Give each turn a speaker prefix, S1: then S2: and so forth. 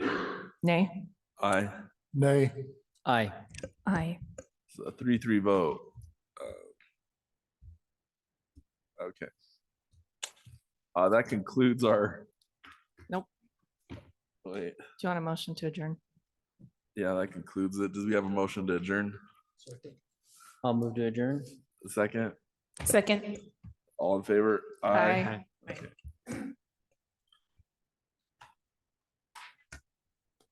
S1: Nay?
S2: Aye.
S3: Nay.
S4: Aye.
S1: Aye.
S2: It's a three, three vote. Uh, Okay. Uh, that concludes our.
S1: Nope.
S2: Wait,
S1: Do you want a motion to adjourn?
S2: yeah, that concludes it. Does we have a motion to adjourn?
S4: I'll move to adjourn.
S2: Second,
S1: Second.
S2: all in favor?
S1: Aye.